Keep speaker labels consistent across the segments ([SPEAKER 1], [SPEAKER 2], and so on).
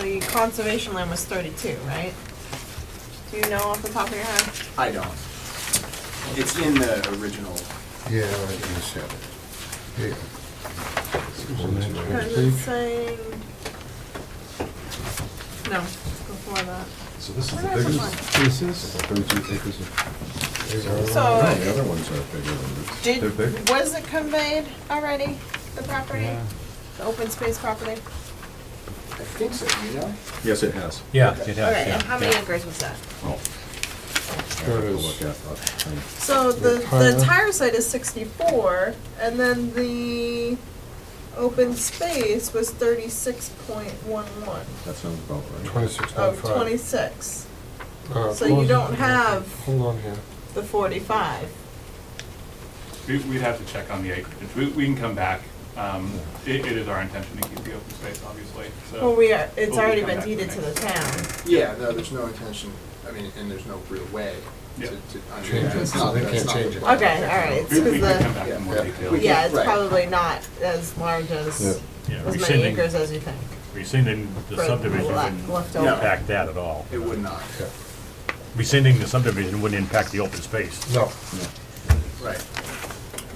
[SPEAKER 1] the conservation land was thirty-two, right? Do you know off the top of your head?
[SPEAKER 2] I don't. It's in the original.
[SPEAKER 3] Yeah, I guess, yeah.
[SPEAKER 1] Because
[SPEAKER 3] Yeah.
[SPEAKER 1] it's saying. No, it's before that.
[SPEAKER 4] So this is the
[SPEAKER 1] Where is the
[SPEAKER 4] biggest, this is thirty-two acres of.
[SPEAKER 1] So-
[SPEAKER 4] No, the other ones are bigger than this. They're big.
[SPEAKER 1] Did, was it conveyed already, the property?
[SPEAKER 5] Yeah.
[SPEAKER 1] The open space property?
[SPEAKER 2] I think so, you know?
[SPEAKER 4] Yes, it has.
[SPEAKER 5] Yeah, it has,
[SPEAKER 1] Okay,
[SPEAKER 5] yeah.
[SPEAKER 1] and how many
[SPEAKER 5] yeah.
[SPEAKER 1] acres was that?
[SPEAKER 4] Oh. I have to look at that. I'm-
[SPEAKER 1] So the, the
[SPEAKER 5] Tyler?
[SPEAKER 1] entire site is sixty-four, and then the open space was thirty-six point one one,
[SPEAKER 4] That sounds about right.
[SPEAKER 3] Twenty-six point
[SPEAKER 1] of
[SPEAKER 3] five.
[SPEAKER 1] twenty-six,
[SPEAKER 3] Uh,
[SPEAKER 1] oh, so you
[SPEAKER 3] close
[SPEAKER 1] don't
[SPEAKER 3] it.
[SPEAKER 1] have-
[SPEAKER 3] Hold on here.
[SPEAKER 1] the forty-five.
[SPEAKER 6] We- We'd have to check on the acreage. We we can come back. Um, It it is our intention to keep the open space, obviously, so.
[SPEAKER 1] Well, we are, it's
[SPEAKER 6] Well, we
[SPEAKER 1] already
[SPEAKER 6] come
[SPEAKER 1] been
[SPEAKER 6] back to
[SPEAKER 1] deeded to the
[SPEAKER 6] that.
[SPEAKER 1] town.
[SPEAKER 2] Yeah, no, there's no intention, I mean, and there's no real way to,
[SPEAKER 6] Yeah.
[SPEAKER 2] to. I mean,
[SPEAKER 3] Change it.
[SPEAKER 2] that's not-
[SPEAKER 3] They
[SPEAKER 2] that's
[SPEAKER 3] can't
[SPEAKER 2] not
[SPEAKER 3] change
[SPEAKER 2] the
[SPEAKER 3] it.
[SPEAKER 2] plan.
[SPEAKER 1] Okay, all right, it's uh,
[SPEAKER 6] We
[SPEAKER 1] 'cause
[SPEAKER 6] we can come
[SPEAKER 1] the,
[SPEAKER 6] back in more
[SPEAKER 3] Yeah.
[SPEAKER 6] detail.
[SPEAKER 2] We-
[SPEAKER 1] yeah, it's
[SPEAKER 2] Right.
[SPEAKER 1] probably not as large
[SPEAKER 4] Yeah.
[SPEAKER 1] as,
[SPEAKER 5] Yeah,
[SPEAKER 1] as many
[SPEAKER 5] rescinding-
[SPEAKER 1] acres as you think.
[SPEAKER 5] Rescinding the
[SPEAKER 1] For
[SPEAKER 5] subdivision
[SPEAKER 1] left-
[SPEAKER 5] wouldn't
[SPEAKER 1] left
[SPEAKER 2] over.
[SPEAKER 5] impact that at all.
[SPEAKER 2] It would not,
[SPEAKER 3] Yeah.
[SPEAKER 5] Rescinding the subdivision wouldn't impact the open space.
[SPEAKER 3] No,
[SPEAKER 2] right.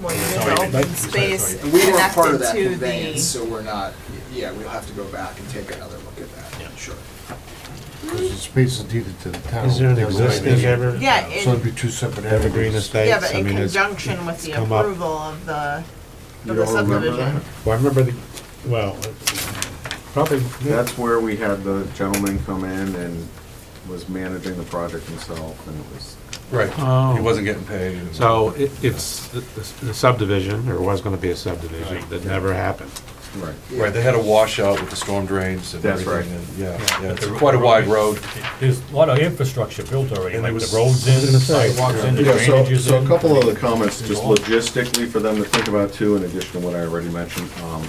[SPEAKER 1] Well,
[SPEAKER 5] It's
[SPEAKER 1] you
[SPEAKER 5] already
[SPEAKER 1] need
[SPEAKER 5] been-
[SPEAKER 1] the open
[SPEAKER 5] it's already-
[SPEAKER 1] space
[SPEAKER 2] And we weren't part of
[SPEAKER 1] connected
[SPEAKER 2] that
[SPEAKER 1] to
[SPEAKER 2] conveyance,
[SPEAKER 1] the,
[SPEAKER 2] so we're not, yeah, we'll have to go back and take another look at that.
[SPEAKER 5] Yeah.
[SPEAKER 2] Sure.
[SPEAKER 3] because the space is deeded to the town.
[SPEAKER 7] Is there an
[SPEAKER 3] Never mind.
[SPEAKER 7] existing ever,
[SPEAKER 1] yeah,
[SPEAKER 3] So it'd
[SPEAKER 1] in,
[SPEAKER 3] be two separate
[SPEAKER 7] evergreen
[SPEAKER 3] evergreens.
[SPEAKER 7] estates?
[SPEAKER 1] yeah, but
[SPEAKER 7] I
[SPEAKER 1] in
[SPEAKER 7] mean, it's-
[SPEAKER 1] conjunction with the
[SPEAKER 7] come up.
[SPEAKER 1] approval of the,
[SPEAKER 4] You
[SPEAKER 1] of the
[SPEAKER 4] all remember
[SPEAKER 1] subdivision.
[SPEAKER 7] Well, I remember the, well, probably,
[SPEAKER 4] That's where we had the gentleman come in and was managing the project himself, and it was,
[SPEAKER 3] Right. He
[SPEAKER 7] oh,
[SPEAKER 3] wasn't getting paid. and-
[SPEAKER 7] so it- it's the- the subdivision, or was gonna be a subdivision,
[SPEAKER 5] Right.
[SPEAKER 7] that never happened.
[SPEAKER 4] right.
[SPEAKER 8] Right, they had a washout with the storm drains and
[SPEAKER 4] That's
[SPEAKER 8] everything,
[SPEAKER 4] right.
[SPEAKER 8] and yeah, yeah,
[SPEAKER 5] But
[SPEAKER 8] it's
[SPEAKER 5] the
[SPEAKER 8] quite a
[SPEAKER 5] road
[SPEAKER 8] wide
[SPEAKER 5] is-
[SPEAKER 8] road.
[SPEAKER 5] There's a lot of infrastructure built already,
[SPEAKER 8] And
[SPEAKER 5] like
[SPEAKER 8] it was-
[SPEAKER 5] the roads in, the sidewalks in, the
[SPEAKER 4] Yeah, so,
[SPEAKER 5] drainage is
[SPEAKER 4] so
[SPEAKER 5] in.
[SPEAKER 4] a couple of the comments, just logistically for them to think about too, in addition to what I already mentioned. Um,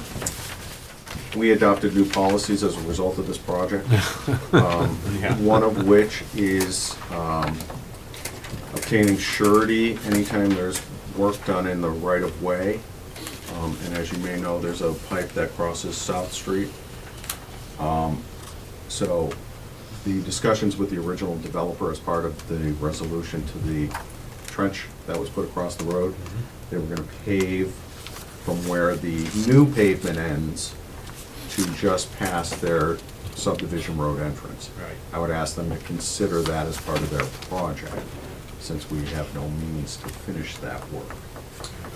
[SPEAKER 4] We adopted new policies as a result of this project. Um,
[SPEAKER 5] Yeah.
[SPEAKER 4] One of which is um, obtaining surety anytime there's work done in the right-of-way. Um, And as you may know, there's a pipe that crosses South Street. Um, So the discussions with the original developer as part of the resolution to the trench that was put across the road, they were gonna pave from where the new pavement ends to just past their subdivision road entrance.
[SPEAKER 5] Right.
[SPEAKER 4] I would ask them to consider that as part of their project, since we have no means to finish that work,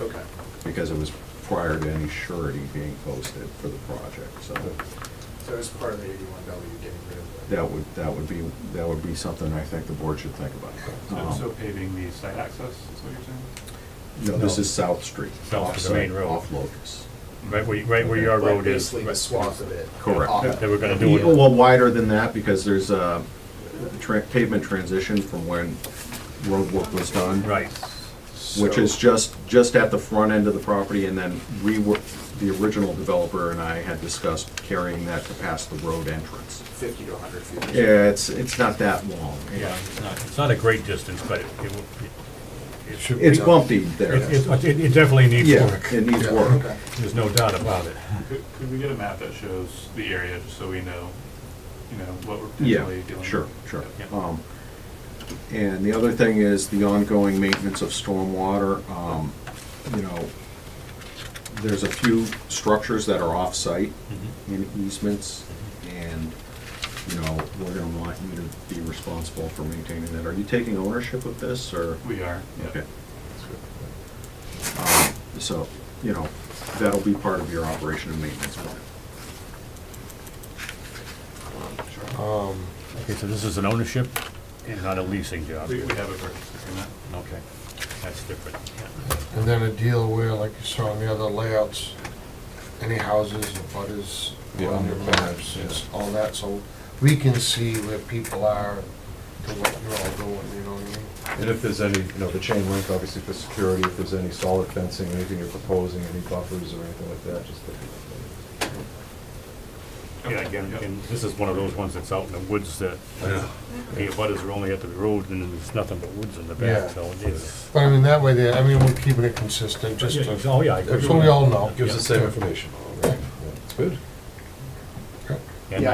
[SPEAKER 2] Okay.
[SPEAKER 4] because it was prior to any surety being posted for the project, so
[SPEAKER 2] So it's part of the eighty-one W getting rid of the.
[SPEAKER 4] that would, that would be, that would be something I think the board should think
[SPEAKER 6] So-
[SPEAKER 4] about.
[SPEAKER 6] So
[SPEAKER 4] Um,
[SPEAKER 6] paving the site access is what you're saying?
[SPEAKER 4] No, this is South Street.
[SPEAKER 5] South to the main
[SPEAKER 4] offsite,
[SPEAKER 5] road.
[SPEAKER 4] Off Locust.
[SPEAKER 5] Right where, right where your
[SPEAKER 2] Like,
[SPEAKER 5] road is.
[SPEAKER 2] Basically the swath of it.
[SPEAKER 4] Correct.
[SPEAKER 2] off.
[SPEAKER 5] They were gonna do
[SPEAKER 4] Yeah,
[SPEAKER 5] it.
[SPEAKER 4] Well, wider than that, because there's a tra- pavement transition from when road work was done.
[SPEAKER 5] Right.
[SPEAKER 4] Which is just, just at the front end of the property, and then we were, the original developer and I had discussed carrying that to past the road entrance.
[SPEAKER 2] Fifty to hundred feet.
[SPEAKER 4] Yeah, it's, it's not that long.
[SPEAKER 5] Yeah, it's not, it's not a great distance, but it, it will- it, it should be.
[SPEAKER 4] It's bumpy there.
[SPEAKER 5] It, it- it, it definitely needs
[SPEAKER 4] Yeah,
[SPEAKER 5] work,
[SPEAKER 4] it needs work.
[SPEAKER 2] Okay.
[SPEAKER 5] there's no doubt about it.
[SPEAKER 6] Could could we get a map that shows the area, just so we know, you know, what we're
[SPEAKER 4] Yeah,
[SPEAKER 6] potentially dealing with?
[SPEAKER 4] sure, sure.
[SPEAKER 5] Yeah.
[SPEAKER 4] Um, And the other thing is the ongoing maintenance of stormwater. Um, You know, there's a few structures that are off-site
[SPEAKER 5] Mm-hmm.
[SPEAKER 4] in easements, and, you know, we're gonna want you to be responsible for maintaining that. Are you taking ownership of this, or?
[SPEAKER 6] We are, yeah.
[SPEAKER 4] Okay. Um, So, you know, that'll be part of your operation and maintenance plan.
[SPEAKER 3] Um,
[SPEAKER 5] Okay, so this is an ownership and not a leasing job?
[SPEAKER 6] We we have a purchase agreement.
[SPEAKER 5] Okay, that's different, yeah.
[SPEAKER 3] And then a deal where, like you saw in the other layouts, any houses or butters
[SPEAKER 8] Yeah,
[SPEAKER 3] on your maps, it's all that, so we can see where people are and what you're all doing, you know what I mean?
[SPEAKER 8] And if there's any, you know, the chain link, obviously for security, if there's any solid fencing, anything you're proposing, any buffers or anything like that, just.
[SPEAKER 5] Yeah, again, and this is one of those ones that's out in the woods that, the butters are only at the road and there's nothing but woods in the
[SPEAKER 3] Yeah.
[SPEAKER 5] back, so it is.
[SPEAKER 3] But I mean, that way there, I mean, we're keeping it consistent, just
[SPEAKER 5] Yeah,
[SPEAKER 3] to,
[SPEAKER 5] Oh, yeah. I agree
[SPEAKER 3] so
[SPEAKER 5] with
[SPEAKER 3] we
[SPEAKER 5] that.
[SPEAKER 3] all know.
[SPEAKER 5] Gives us
[SPEAKER 8] information. Good.